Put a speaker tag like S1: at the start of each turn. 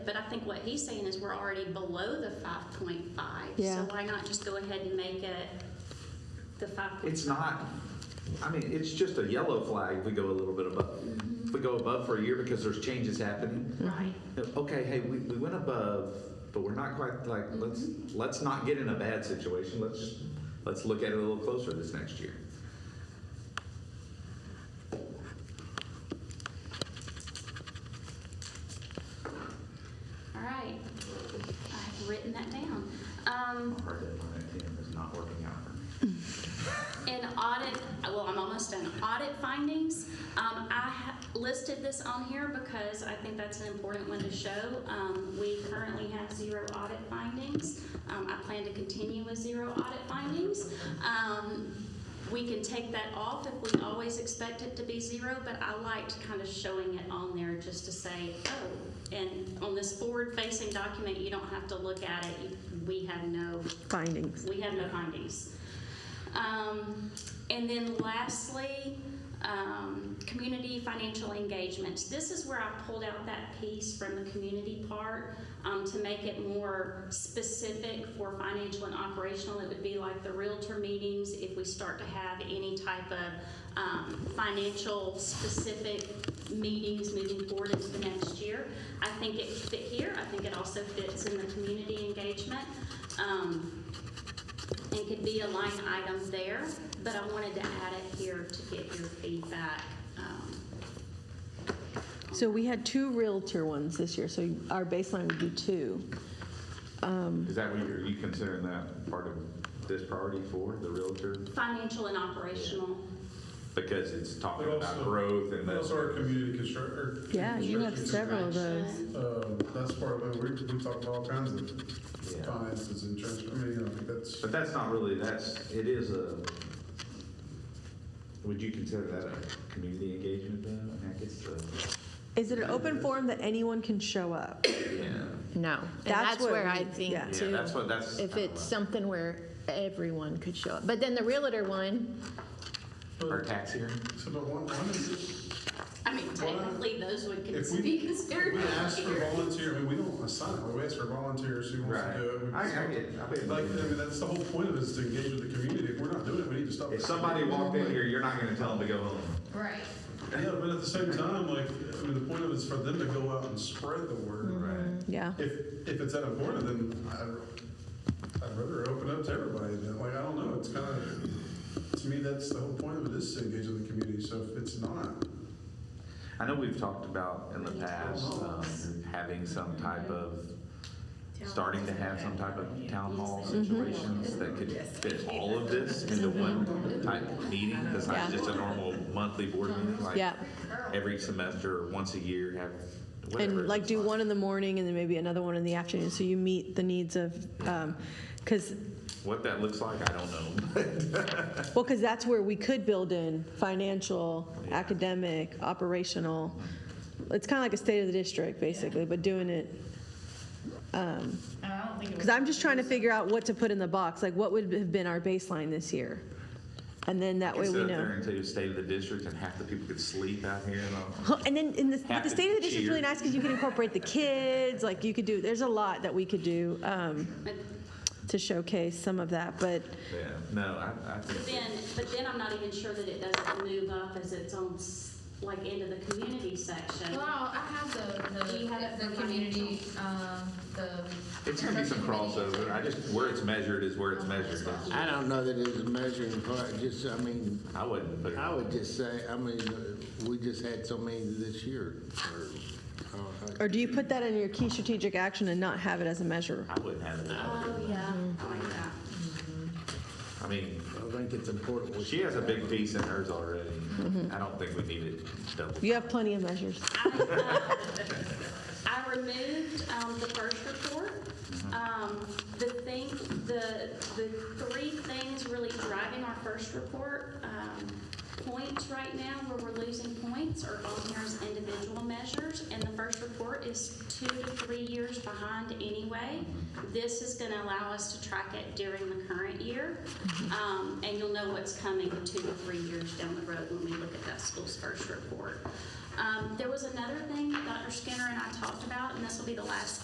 S1: But I think what he's saying is we're already below the five point five.
S2: Yeah.
S1: So why not just go ahead and make it the five point?
S3: It's not, I mean, it's just a yellow flag if we go a little bit above. If we go above for a year because there's changes happening,
S1: Right.
S3: okay, hey, we, we went above, but we're not quite like, let's, let's not get in a bad situation. Let's, let's look at it a little closer this next year.
S1: All right. I've written that down. Um,
S3: My hard deadline at 10 is not working out for me.
S1: In audit, well, I'm almost done. Audit findings, um, I ha- listed this on here because I think that's an important one to show. Um, we currently have zero audit findings. Um, I plan to continue with zero audit findings. Um, we can take that off if we always expect it to be zero, but I liked kind of showing it on there just to say, oh, and on this forward-facing document, you don't have to look at it. You- We have no
S2: findings.
S1: we have no findings. Um, and then lastly, um, community financial engagement. This is where I pulled out that piece from the community part um, to make it more specific for financial and operational. It would be like the realtor meetings if we start to have any type of um, financial specific meetings moving forward into the next year. I think it fit here. I think it also fits in the community engagement. Um, and could be a line item there, but I wanted to add it here to get your feedback. um,
S2: So we had two Realtor ones this year, so our baseline would be two.
S3: Is that what you're, you considering that part of this priority for, the realtor?
S1: Financial and operational.
S3: Because it's talking
S4: But
S3: about
S4: also-
S3: growth and
S4: And
S3: that's.
S4: that's our community construct, or.
S2: Yeah, you have several of those.
S4: Um, that's part of it, we, we talk about all kinds of
S3: Yeah.
S4: finances and transfer, I mean, I think that's,
S3: But that's not really, that's, it is a, would you consider that a community engagement though? I mean, I guess the,
S2: Is it an open forum that anyone can show up?
S3: yeah.
S5: No, and
S2: That's
S5: that's
S2: what
S5: where
S2: we-
S5: I think
S2: yeah.
S3: Yeah,
S5: too.
S3: that's what, that's.
S5: If it's something where everyone could show up, but then the realtor one,
S3: Our
S4: but,
S3: tax hearing?
S4: so, but one, one is,
S1: I mean, technically, those would
S4: If
S1: cons-
S4: we-
S1: be considered.
S4: we ask for
S1: here.
S4: volunteer, I mean, we don't assign, it. we ask for volunteers who wants to do it. We-
S3: I, I get, it. I bet.
S4: Like, I mean, that's the whole point of it, is to engage with the community, if we're not doing it, we need to stop.
S3: If somebody walked in here, you're not gonna tell them to go home.
S5: right?
S4: Yeah, but at the same time, like, I mean, the point of it is for them to go out and spread the word.
S3: Right.
S2: Yeah.
S4: If, if it's at a corner, then I'd, I'd rather open up to everybody. Then, like, I don't know, it's kind of, to me, that's the whole point of it is to engage with the community. So if it's not,
S3: I know we've talked about in the past, um, having some type
S2: Mm-hmm.
S3: of, starting to have some type of town hall
S2: Mm-hmm.
S3: situations that could fit all of this into one type of meeting, that's not
S2: Yeah. Mm-hmm.
S3: just a normal monthly board meeting, like
S2: Yeah.
S3: every semester, or once a year, have whatever.
S2: And like
S3: it's
S2: do one in the morning and then maybe another one in the afternoon, so you meet the needs of, um, because,
S3: What that looks like, I don't know.
S2: well, because that's where we could build in financial, academic, operational. It's kind of like a state of the district, basically, but doing it
S6: I don't think it was.
S2: Because I'm just trying to figure out what to put in the box, like what would have been our baseline this year? And then that way
S3: Sit
S2: we
S3: up there
S2: know.
S3: and tell you state of the district, and half the people could sleep out here, and all.
S2: Huh, And then in the, but
S3: Half
S2: the
S3: the
S2: state of the district's really
S3: cheer.
S2: nice because you can incorporate the kids, like you could do, there's a lot that we could do um,
S1: But
S2: to showcase some of that, but
S3: yeah, no, I, I
S1: but
S3: think,
S1: then, but then I'm not even sure that it doesn't move up as its own, s- like, into the community section.
S6: Well, I have the,
S1: Do
S6: the,
S1: you have it
S6: the
S1: for
S6: community, um, the.
S3: it's gonna be some crossover, I just, where it's measured is where it's measured.
S7: I don't know that it's a measuring part, just, I mean,
S3: I wouldn't put it.
S7: I would just say, I mean, we just had so many this year. or, uh,
S2: or do you put that in your key strategic action and not have it as a measure?
S3: I wouldn't have it. that way.
S1: Oh, yeah, I like that.
S3: I mean,
S7: I think it's important. we-
S3: she has a big piece in hers already. I don't think we need it double.
S2: You have plenty of measures.
S1: I, uh, I removed um, the first report. Um, The thing, the, the three things really driving our first report, um, points right now where we're losing points are on here as individual measures. And the first report is two to three years behind anyway. This is going to allow us to track it during the current year. Um, And you'll know what's coming two to three years down the road when we look at that school's first report. Um, there was another thing that Dr. Skinner and I talked about, and this will be the last